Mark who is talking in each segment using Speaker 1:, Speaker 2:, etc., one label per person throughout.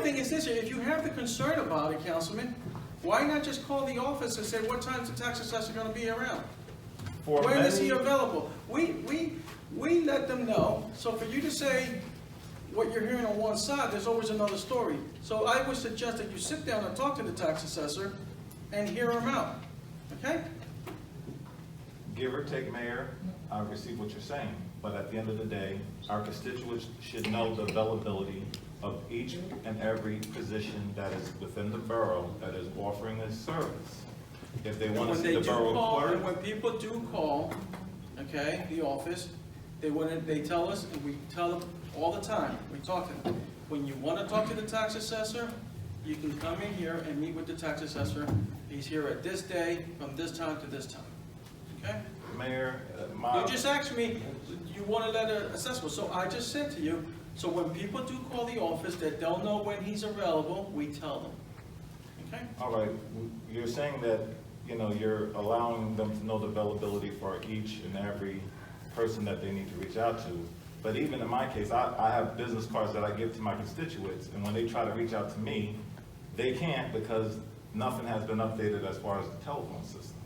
Speaker 1: says here, if you have the concern about it, Councilman, why not just call the office and say, what time's the tax assessor gonna be around?
Speaker 2: For
Speaker 1: When is he
Speaker 2: many-
Speaker 1: available? We, we, we let them know, so for you to say what you're hearing on one side, there's always another story. So I would suggest that you sit down and talk to the tax assessor and hear him out, okay?
Speaker 2: Give or take, Mayor, I receive what you're saying, but at the end of the day, our constituents should know the availability of each and every position that is within the borough that is offering this service. If they want to
Speaker 1: When
Speaker 2: see
Speaker 1: they
Speaker 2: the
Speaker 1: do call,
Speaker 2: borough
Speaker 1: and
Speaker 2: clerk,
Speaker 1: when people do call, okay, the office, they want they tell us, and we tell them all the time, we talk to them. When you wanna talk to the tax assessor, you can come in here and meet with the tax assessor. He's here at this day, from this time to this time, okay?
Speaker 2: Mayor, uh,
Speaker 1: You
Speaker 2: my,
Speaker 1: just asked me, you want a letter assessment, so I just said to you, so when people do call the office, that they'll know when he's available, we tell them, okay?
Speaker 2: all right, w- you're saying that, you know, you're allowing them to know the availability for each and every person that they need to reach out to. But even in my case, I, I have business cards that I give to my constituents, and when they try to reach out to me, they can't because nothing has been updated as far as the telephone system.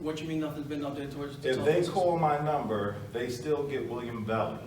Speaker 1: What you mean nothing's been updated towards the
Speaker 2: If
Speaker 1: telephone
Speaker 2: they
Speaker 1: system?
Speaker 2: call my number, they still get William Valley.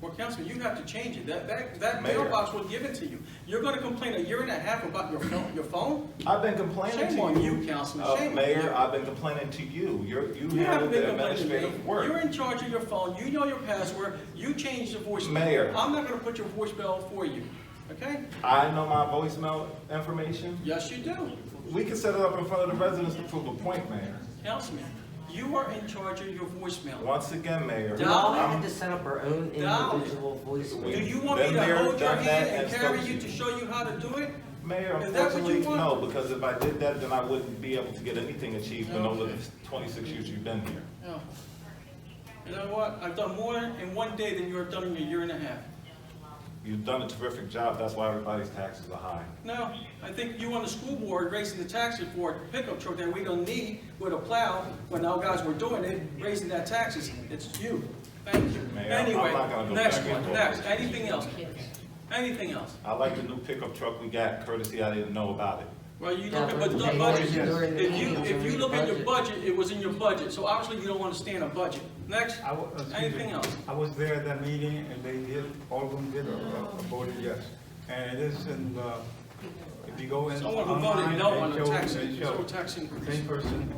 Speaker 1: Well, Councilman, you have to change it. That, that, that
Speaker 2: Mayor.
Speaker 1: mailbox was given to you. You're gonna complain a year and a half about your phone, your phone?
Speaker 2: I've been complaining to you.
Speaker 1: Shame on you, Councilman,
Speaker 2: Uh,
Speaker 1: shame on you.
Speaker 2: Mayor, I've been complaining to you. You're, you
Speaker 1: You
Speaker 2: handle
Speaker 1: haven't been
Speaker 2: the
Speaker 1: complaining to
Speaker 2: administrative
Speaker 1: me.
Speaker 2: work.
Speaker 1: You're in charge of your phone, you know your password, you changed the voicemail.
Speaker 2: Mayor.
Speaker 1: I'm not gonna put your voicemail for you, okay?
Speaker 2: I know my voicemail information.
Speaker 1: Yes, you do.
Speaker 2: We can set it up in front of the residents to prove a point, Mayor.
Speaker 1: Councilman, you are in charge of your voicemail.
Speaker 2: Once again, Mayor. Um,
Speaker 3: We all
Speaker 1: Dolly.
Speaker 2: I'm-
Speaker 3: had to set up our own
Speaker 1: Dolly.
Speaker 3: individual
Speaker 1: Do
Speaker 3: voicemail.
Speaker 1: you want me
Speaker 2: Been
Speaker 1: to
Speaker 2: there,
Speaker 1: hold your
Speaker 2: done that,
Speaker 1: hand and
Speaker 2: and
Speaker 1: carry
Speaker 2: spoke
Speaker 1: you
Speaker 2: to
Speaker 1: to
Speaker 2: you.
Speaker 1: show you how to do it?
Speaker 2: Mayor,
Speaker 1: Is that what you
Speaker 2: unfortunately, no,
Speaker 1: want?
Speaker 2: because if I did that, then I wouldn't be able to get anything achieved in over the
Speaker 1: Okay.
Speaker 2: twenty-six years you've been here.
Speaker 1: No. You know what? I've done more in one day than you have done in a year and a half.
Speaker 2: You've done a terrific job. That's why everybody's taxes are high.
Speaker 1: No, I think you on the school board raising the taxes for a pickup truck that we don't need with a plow, when our guys were doing it, raising that taxes, it's you. Thank you.
Speaker 2: Mayor, I'm
Speaker 1: Anyway,
Speaker 2: not gonna go
Speaker 1: next
Speaker 2: back and
Speaker 1: one,
Speaker 2: forth.
Speaker 1: next, anything else? Anything else?
Speaker 2: I like the new pickup truck we got courtesy I didn't know about it.
Speaker 1: Well, you look at, but the
Speaker 3: Yeah, but
Speaker 1: budget,
Speaker 2: they always
Speaker 3: do it in
Speaker 1: if you,
Speaker 3: the
Speaker 1: if you look at your
Speaker 3: budget.
Speaker 1: budget, it was in your budget, so obviously you don't understand a budget. Next,
Speaker 4: I wa- excuse me.
Speaker 1: anything else?
Speaker 4: I was there at that meeting and they did, all of them did, uh, voted yes. And it is in the, if you go in.
Speaker 1: Someone who voted
Speaker 4: online,
Speaker 1: no
Speaker 4: they
Speaker 1: on the
Speaker 4: show-
Speaker 1: tax,
Speaker 4: they
Speaker 1: it's
Speaker 4: show
Speaker 1: a tax
Speaker 4: the
Speaker 1: increase.
Speaker 4: Same person,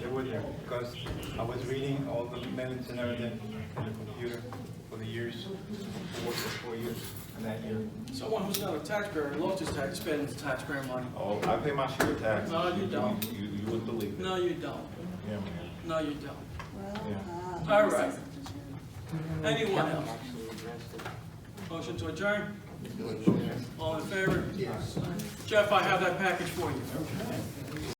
Speaker 4: they were there, because I was reading all the minutes and everything on the computer for the years, I worked for four years, and that year.
Speaker 1: Someone who's not a taxpayer loves his tax, spends taxpayer money.
Speaker 2: Oh, I pay my share of taxes.
Speaker 1: No, you don't.
Speaker 2: You, you wouldn't believe it.
Speaker 1: No, you don't.
Speaker 2: Yeah, Mayor.
Speaker 1: No, you don't.
Speaker 2: Yeah.
Speaker 1: All right. Anyone
Speaker 3: Kevin
Speaker 1: else?
Speaker 3: actually addressed it.
Speaker 1: Motion to adjourn? All in favor? Yes. Jeff, I have that package for you.